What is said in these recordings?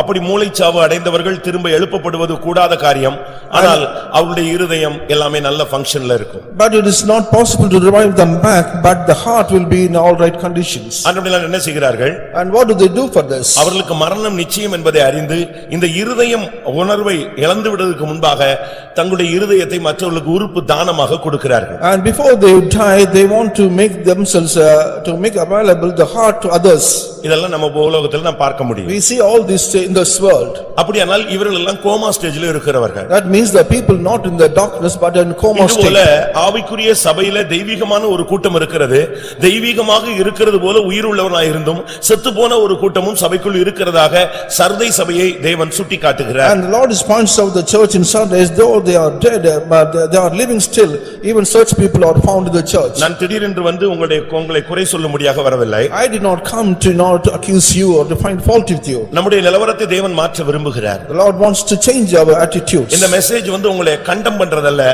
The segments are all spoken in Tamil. அப்படி மூளைச்சாவு அடைந்தவர்கள் திரும்ப எழுப்பப்படுவது கூடாத காரியம் ஆனால் அவருடைய இருதயம் எல்லாமே நல்ல பங்கன்ல இருக்கும் But it is not possible to revive them back, but the heart will be in all right conditions. அன்றைய என்ன செய்கிறார்கள் And what do they do for this? அவர்களுக்கு மரணம் நிச்சயம் என்பதை அறிந்து இந்த இருதயம் உணர்வை இழந்து விடுவதற்கு முன்பாக தங்களுடைய இருதயத்தை மற்றவர்களுக்கு உறுப்பு தானமாக கொடுக்கிறார்கள் And before they die, they want to make themselves, uh, to make available the heart to others. இதெல்லாம் நம்ம உலகத்தில் நாம் பார்க்க முடியும் We see all this in this world. அப்படியானால் இவர்கள் எல்லாம் கோமா ஸ்டேஜில் இருக்கிறவர்கள் That means the people not in the darkness but in coma இதுபோல state. ஆவிக்குரிய சபையில தெய்வீகமான ஒரு கூட்டம் இருக்கிறது தெய்வீகமாக இருக்கிறது போல உயிருள்ளவனாயிருந்தும் செத்துப்போன ஒரு கூட்டமும் சபைக்குள் இருக்கிறதாக சர்தை சபையை தேவன் சுட்டிக்காட்டுகிறார் And the Lord is points out the church in Sundays, though they are dead, uh, but they- they are living still, even such people are found in the church. நான் திடீரென்று வந்து உங்களுடைய உங்களை குறை சொல்லும்படியாக வரவில்லை I did not come to not accuse you or to find fault with you. நம்முடைய நிலவரத்தை தேவன் மாற்ற விரும்புகிறார் The Lord wants to change our attitudes. இந்த மெசேஜ் வந்து உங்களை கண்டம் பண்றதல்ல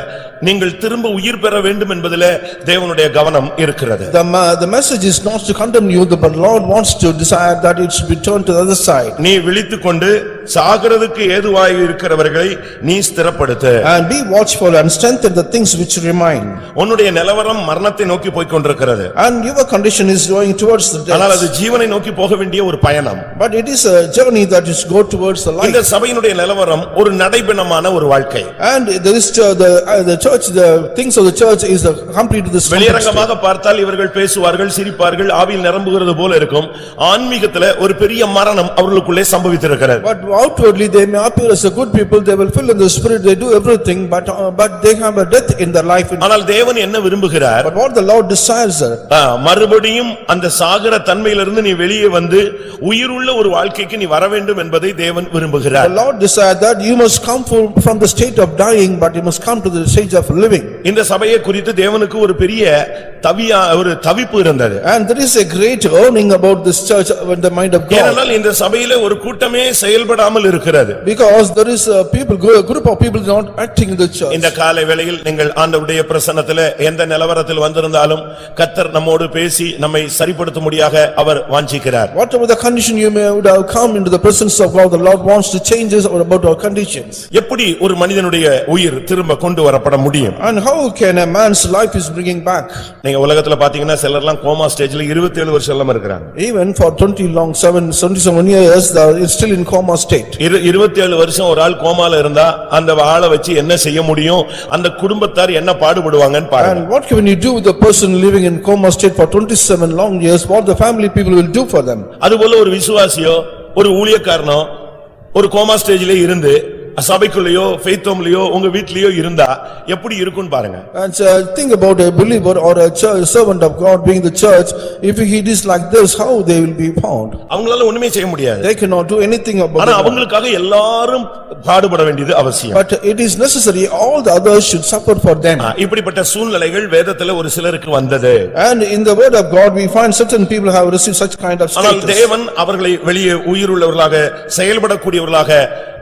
நீங்கள் திரும்ப உயிர் பெற வேண்டும் என்பதில தேவனுடைய கவனம் இருக்கிறது The ma- the message is not to condemn you, but Lord wants to desire that it should be turned to the other side. நீ விழித்துக்கொண்டு சாகிறதுக்கு ஏதுவாய் இருக்கிறவர்களை நீ ஸ்திரப்படுத்து And be watchful and strengthen the things which remain. உன்னுடைய நிலவரம் மரணத்தை நோக்கி போய்க் கொண்டிருக்கிறது And your condition is going towards the ஆனால் death. அது ஜீவனை நோக்கி போக வேண்டிய ஒரு பயணம் But it is a journey that is go towards the light. இந்த சபையினுடைய நிலவரம் ஒரு நடைபெணமான ஒரு வாழ்க்கை And there is uh, the, uh, the church, the things of the church is the complete to this. வெளியரங்கமாக பார்த்தால் இவர்கள் பேசுவார்கள் சிரிப்பார்கள் ஆவியில் நிரம்புகிறது போல இருக்கும் ஆன்மீகத்துல ஒரு பெரிய மரணம் அவர்களுக்குள்ளே சம்பவித்திருக்கிறது But outwardly, they may appear as a good people, they will fill in the spirit, they do everything, but uh, but they have a death in their life. ஆனால் தேவன் என்ன விரும்புகிறார் But what the Lord desires, uh, ஆ, மறுபடியும் அந்த சாகர தன்மையிலிருந்து நீ வெளியே வந்து உயிருள்ள ஒரு வாழ்க்கைக்கு நீ வர வேண்டும் என்பதை தேவன் the விரும்புகிறார் Lord desires that you must come from from the state of dying, but you must come to the stage of living. இந்த சபையை குறித்து தேவனுக்கு ஒரு பெரிய தவியா ஒரு தவிப்பு இருந்தது And there is a great earning about this church in the mind of God. ஏனென்றால் இந்த சபையில ஒரு கூட்டமே செயல்படாமல் இருக்கிறது Because there is a people, a group of people not acting in the church. இந்த காலை வேளையில் நீங்கள் ஆண்டவருடைய பிரசன்னத்திலே எந்த நிலவரத்தில் வந்திருந்தாலும் கத்தர் நம்மோடு பேசி நம்மை சரிப்படுத்தும்படியாக அவர் வாஞ்சிக்கிறார் Whatever the condition you may would have come into the presence of God, the Lord wants to change us about our conditions. எப்படி ஒரு மனிதனுடைய உயிர் திரும்ப கொண்டு வரப்பட முடியும் And how can a man's life is bringing back? நீங்க உலகத்துல பாத்தீங்கன்னா சிலர்லாம் கோமா ஸ்டேஜ்ல 27 வருஷம் எல்லாம் இருக்கிறாங்க Even for twenty long, seven, seventy-seven years, they are still in coma state. இரு இருபத்தேழு வருஷம் ஒரு ஆள் கோமால இருந்தா அந்த ஆளை வச்சு என்ன செய்ய முடியும் அந்த குடும்பத்தார் என்ன பாடுபடுவாங்கன்னு பாருங்க And what can you do with the person living in coma state for twenty-seven long years? What the family people will do for them? அதுபோல ஒரு விசுவாசியோ ஒரு ஊழியக்காரனோ ஒரு கோமா ஸ்டேஜ்ல இருந்து சபைக்குள்ளேயோ ஃபெய்த்தோம்லயோ உங்க வீட்லயோ இருந்தா எப்படி இருக்கும்னு பாருங்க And uh, think about a believer or a church- servant of God being the church, if he is like this, how they will be found? அவங்களால ஒண்ணுமே செய்ய முடியாது They cannot do anything ஆனா about it. அவங்களுக்காக எல்லாரும் பாடுபட வேண்டியது அவசியம் But it is necessary, all the others should suffer for them. ஆ, இப்படிப்பட்ட சூழ்நிலைகள் வேதத்துல ஒரு சிலருக்கு வந்தது And in the word of God, we find certain people have received such kind of ஆனால் status. தேவன் அவர்களை வெளியே உயிருள்ளவர்களாக செயல்படக்கூடியவர்களாக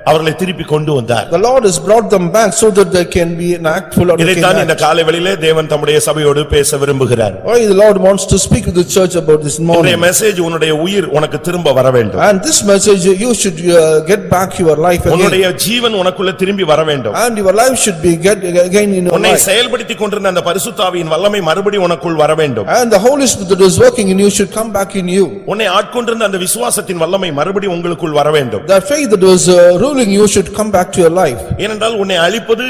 அவர்களை திருப்பி கொண்டு வந்தார் The Lord has brought them back so that they can be an actful or they can இதைத்தான் இந்த act. காலை வெளியிலே தேவன் தம்முடைய சபையோடு பேச விரும்புகிறார் Why the Lord wants to speak with the church about this உன்னுடைய morning. மெசேஜ் உன்னுடைய உயிர் உனக்கு திரும்ப வர வேண்டும் And this message, you should uh, get back your life again. உன்னுடைய ஜீவன் உனக்குள்ள திரும்பி வர வேண்டும் And your life should be get uh, again in your உன்னை life. செயல்படுத்திக் கொண்டிருந்த அந்த பரிசுத்தாவியின் வல்லமை மறுபடி உனக்குள் வர வேண்டும் And the Holy Spirit that is working in you should come back in you. உன்னை ஆட்கொண்டிருந்த அந்த விசுவாசத்தின் வல்லமை மறுபடி உங்களுக்குள் வர வேண்டும் The faith that was uh, ruling you should come back to your life. ஏனென்றால் உன்னை அழிப்பது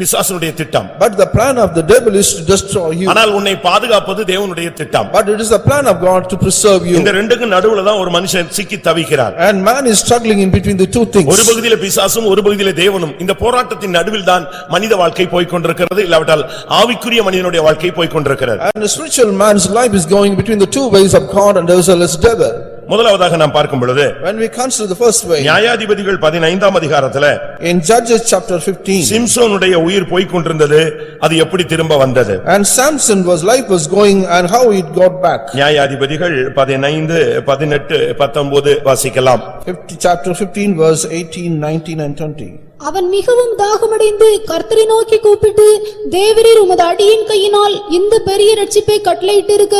பிசாசனுடைய திட்டம் But the plan of the devil is to destroy you. ஆனால் உன்னை பாதுகாப்பது தேவனுடைய திட்டம் But it is the plan of God to preserve you. இந்த ரெண்டுக்கும் நடுவுல தான் ஒரு மனுஷன் சிக்கி தவிக்கிறார் And man is struggling in between the two ஒரு things. பகுதியில பிசாசும் ஒரு பகுதியில தேவனும் இந்த போராட்டத்தின் நடுவில் தான் மனித வாழ்க்கை போய்க்கொண்டிருக்கிறது இல்லாவிட்டால் ஆவிக்குரிய மனிதனுடைய வாழ்க்கை போய்க்கொண்டிருக்கிறது And the spiritual man's life is going between the two ways of God and as well as devil. முதலாவதாக நாம் பார்க்கும் பொழுது When we consider the first way, நியாயாதிபதிகள் பதினைந்தாம் அதிகாரத்துல in Judges chapter fifteen, சிம்சோனுடைய உயிர் போய்க்கொண்டிருந்தது அது எப்படி திரும்ப வந்தது and Samson was, life was going and how it got back. நியாயாதிபதிகள் பதினைந்து பதினெட்டு பத்தொன்பது வாசிக்கலாம் Fifty, chapter fifteen, verse eighteen, nineteen and twenty. அவன் மிகவும் தாகமடைந்து கர்த்தரை நோக்கி கூப்பிட்டு தேவரீர் உமது அடியின் கையினால் இந்த பெரிய ரட்சிப்பை கட்டளையிட்டிருக்க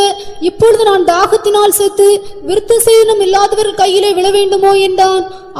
இப்பொழுது நான் தாகத்தினால் செத்து விருத்த சேதனம் இல்லாதவர் கையிலே விழ வேண்டுமோ என்றான்